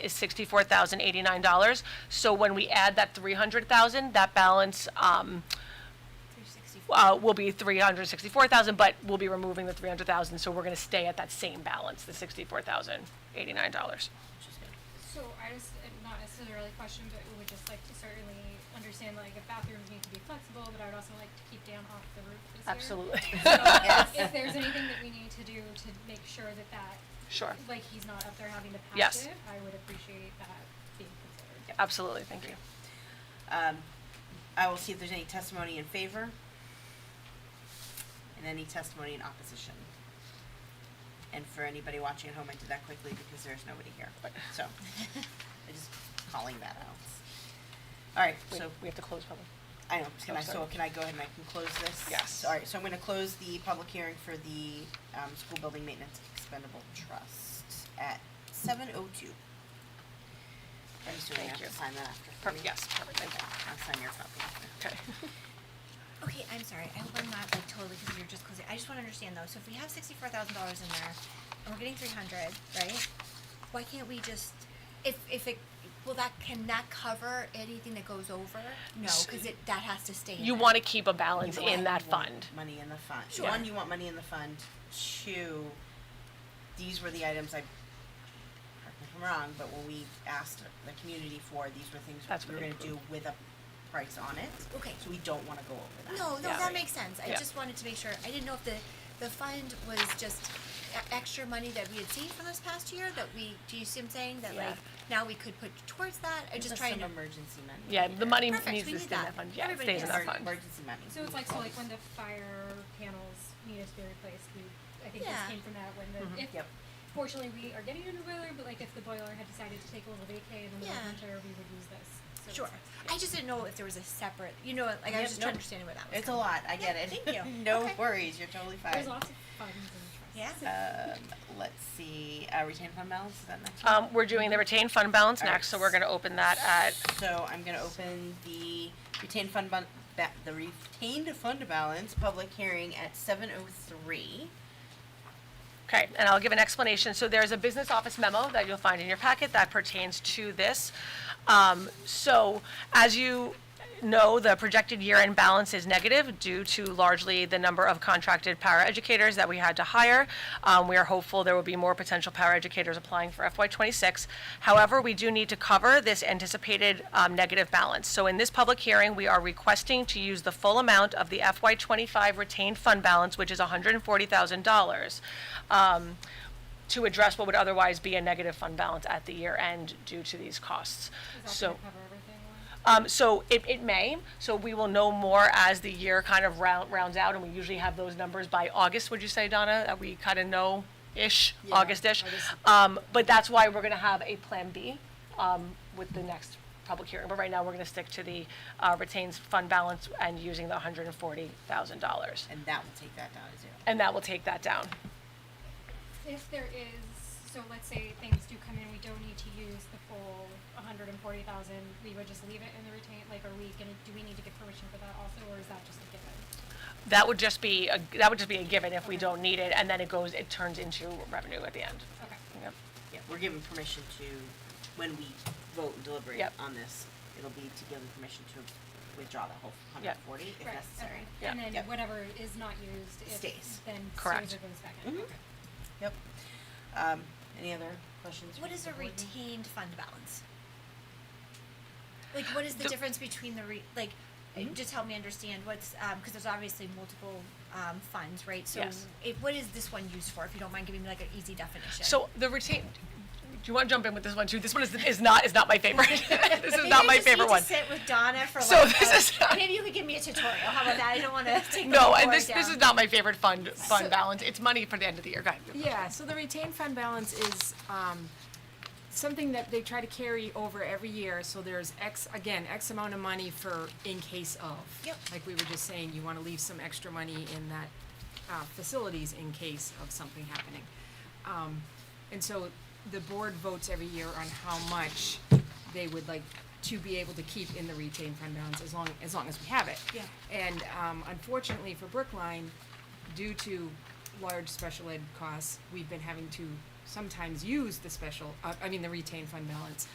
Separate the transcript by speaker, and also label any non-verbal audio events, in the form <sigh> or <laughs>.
Speaker 1: is sixty-four thousand eighty-nine dollars. So when we add that three hundred thousand, that balance, um, uh, will be three hundred sixty-four thousand, but we'll be removing the three hundred thousand, so we're gonna stay at that same balance, the sixty-four thousand eighty-nine dollars.
Speaker 2: So I just, uh, not necessarily a question, but we would just like to certainly understand, like, if bathrooms need to be flexible, but I would also like to keep down off the roof this year. So if there's anything that we need to do to make sure that that,
Speaker 1: Sure,
Speaker 2: like, he's not up there having to
Speaker 1: Yes.
Speaker 2: patch it, I would appreciate that being considered.
Speaker 1: absolutely, thank you.
Speaker 3: Um, I will see if there's any testimony in favor and any testimony in opposition. And for anybody watching at home, I did that quickly because there's nobody here, but,
Speaker 1: <laughs>
Speaker 3: so, I'm just calling that out. All right,
Speaker 1: Wait,
Speaker 3: so,
Speaker 1: we have to close public.
Speaker 3: I know, can
Speaker 1: Oh,
Speaker 3: I, so
Speaker 1: sorry.
Speaker 3: can I go ahead and I can close this?
Speaker 1: Yes.
Speaker 3: All right, so I'm gonna close the public hearing for the, um, school building maintenance expendable trust at seven oh two. I'm
Speaker 1: Thank
Speaker 3: assuming I have to
Speaker 1: you.
Speaker 3: sign that after.
Speaker 1: Perfect, yes, perfect,
Speaker 3: Okay,
Speaker 1: thank you.
Speaker 3: I'll sign your copy.
Speaker 1: Okay.
Speaker 4: Okay, I'm sorry, I hope I'm not like totally, because you're just closing, I just wanna understand though, so if we have sixty-four thousand dollars in there, and we're getting three hundred, right? Why can't we just, if, if it, will that, can that cover anything that goes over? No, cause it, that has to stay in
Speaker 1: You
Speaker 4: there.
Speaker 1: wanna keep a balance
Speaker 3: You want-
Speaker 1: in that
Speaker 3: you want
Speaker 1: fund.
Speaker 3: Money in the fund.
Speaker 4: Sure.
Speaker 3: One, you want money in the fund. Two, these were the items I, correct me if I'm wrong, but when we asked the community for, these were things
Speaker 1: That's
Speaker 3: we were
Speaker 1: what
Speaker 3: gonna
Speaker 1: they
Speaker 3: do with a price on it.
Speaker 4: Okay.
Speaker 3: So we don't wanna go over that.
Speaker 4: No, no,
Speaker 1: Yeah.
Speaker 4: that makes sense, I
Speaker 1: Yeah.
Speaker 4: just wanted to make sure, I didn't know if the, the fund was just e- extra money that we had saved for this past year, that we, do you see what I'm saying, that
Speaker 1: Yeah.
Speaker 4: like, now we could put towards that, I just
Speaker 3: Just
Speaker 4: trying
Speaker 3: some
Speaker 4: to,
Speaker 3: emergency money.
Speaker 1: Yeah, the money needs to
Speaker 4: Perfect, we
Speaker 1: stay in
Speaker 4: need that.
Speaker 1: that fund, yeah, it
Speaker 4: Everybody
Speaker 1: stays in
Speaker 4: needs
Speaker 1: that
Speaker 4: it.
Speaker 1: fund.
Speaker 3: Emergency money.
Speaker 2: So it's like, so like when the fire panels needed to be replaced, we, I think this
Speaker 4: Yeah.
Speaker 2: came from that, when the, if,
Speaker 3: Yep.
Speaker 2: fortunately, we are getting a new boiler, but like, if the boiler had decided to take a little vacay in the middle of
Speaker 4: Yeah.
Speaker 2: winter, we would use this, so it's
Speaker 4: sure,
Speaker 2: like-
Speaker 4: I just didn't know if there was a separate, you know, like, I
Speaker 3: Yep,
Speaker 4: was just trying to
Speaker 3: nope.
Speaker 4: understand where that was
Speaker 3: It's a
Speaker 4: coming
Speaker 3: lot, I get
Speaker 4: Yeah,
Speaker 3: it.
Speaker 4: thank you.
Speaker 3: <laughs> No
Speaker 4: Okay.
Speaker 3: worries, you're totally fine.
Speaker 2: There's lots of funds and trusts.
Speaker 4: Yeah.
Speaker 3: Um, let's see, uh, retain fund balance, is that next?
Speaker 1: Um, we're doing the retained fund balance
Speaker 3: Alright.
Speaker 1: next, so we're gonna open that at,
Speaker 3: So I'm gonna open the retained fund bun- ba- the retained fund balance public hearing at seven oh three.
Speaker 1: Okay, and I'll give an explanation. So there's a business office memo that you'll find in your packet that pertains to this. Um, So as you know, the projected year-end balance is negative due to largely the number of contracted paraeducators that we had to hire. Um, We are hopeful there will be more potential paraeducators applying for FY '26. However, we do need to cover this anticipated um, negative balance. So in this public hearing, we are requesting to use the full amount of the FY '25 retained fund balance, which is $140,000 um, to address what would otherwise be a negative fund balance at the year end due to these costs.
Speaker 2: Is that
Speaker 1: So,
Speaker 2: gonna cover everything? Lauren?
Speaker 1: um, so it, it may, so we will know more as the year kind of round, rounds out, and we usually have those numbers by August, would you say, Donna? That we kind of know-ish,
Speaker 3: Yeah,
Speaker 1: August-ish? Um, but that's why we're gonna have a Plan B, um, with the next public hearing. But right now, we're gonna stick to the, uh, retains fund balance and using the hundred and forty thousand dollars.
Speaker 3: And that will take that down to zero.
Speaker 1: And that will take that down.
Speaker 2: If there is, so let's say things do come in, we don't need to use the full hundred and forty thousand, we would just leave it in the retain, like, are we gonna, do we need to get permission for that also, or is that just a given?
Speaker 1: That would just be, a that would just be a given if we don't need it, and then it goes, it turns into revenue at the end.
Speaker 2: Okay.
Speaker 1: Yep.
Speaker 3: Yeah, we're given permission to, when we vote and deliberate
Speaker 1: Yep.
Speaker 3: on this, it'll be to give them permission to withdraw that whole hundred
Speaker 1: Yep.
Speaker 3: and forty if
Speaker 2: Right,
Speaker 3: necessary.
Speaker 2: okay.
Speaker 1: Yeah.
Speaker 2: And then
Speaker 3: Yep.
Speaker 2: whatever is not used, if, then
Speaker 3: Stays.
Speaker 1: Correct. Mm-hmm.
Speaker 2: stays or goes back in.
Speaker 3: Mhm.
Speaker 2: Okay.
Speaker 3: Yep. Um, any other questions?
Speaker 1: uh,
Speaker 4: What
Speaker 3: from
Speaker 4: is
Speaker 3: the
Speaker 4: a
Speaker 3: board?
Speaker 4: retained fund balance? Like, what is
Speaker 1: The-
Speaker 4: the
Speaker 1: Mm-hmm.
Speaker 4: difference between the re, like, uh, just help me understand what's, um, cause there's obviously multiple, um, funds, right?
Speaker 1: Yes.
Speaker 4: So, it, what is this one used for, if you don't mind giving me like an easy definition?
Speaker 1: So the retain, do you want to jump in with this one too? This one is, is not, is not my
Speaker 4: <laughs>
Speaker 1: favorite. <laughs> This is
Speaker 4: Maybe
Speaker 1: not
Speaker 4: I
Speaker 1: my
Speaker 4: just need
Speaker 1: favorite
Speaker 4: to
Speaker 1: one.
Speaker 4: sit with Donna for
Speaker 1: So
Speaker 4: like,
Speaker 1: this is
Speaker 4: a-
Speaker 1: not-
Speaker 4: maybe you could give me a tutorial, how about that, I
Speaker 1: <laughs>
Speaker 4: don't wanna take the
Speaker 1: No,
Speaker 4: whole
Speaker 1: and
Speaker 4: board
Speaker 1: this, this
Speaker 4: down.
Speaker 1: is not my favorite fund,
Speaker 2: So-
Speaker 1: fund balance. It's money for the end of the year. Go ahead.
Speaker 5: Yeah, so the retained fund balance is, um, something that they try to carry over every year, so there's X, again, X amount of money for in case of.
Speaker 4: Yep.
Speaker 5: Like we were just saying, you wanna leave some extra money in that, uh, facilities in case of something happening. Um, and so the board votes every year on how much they would like to be able to keep in the retained fund balance as long, as long as we have it.
Speaker 4: Yeah.
Speaker 5: And, um, unfortunately for Brookline, due to large special ed costs, we've been having to sometimes use the special, uh, I mean, the retained fund balance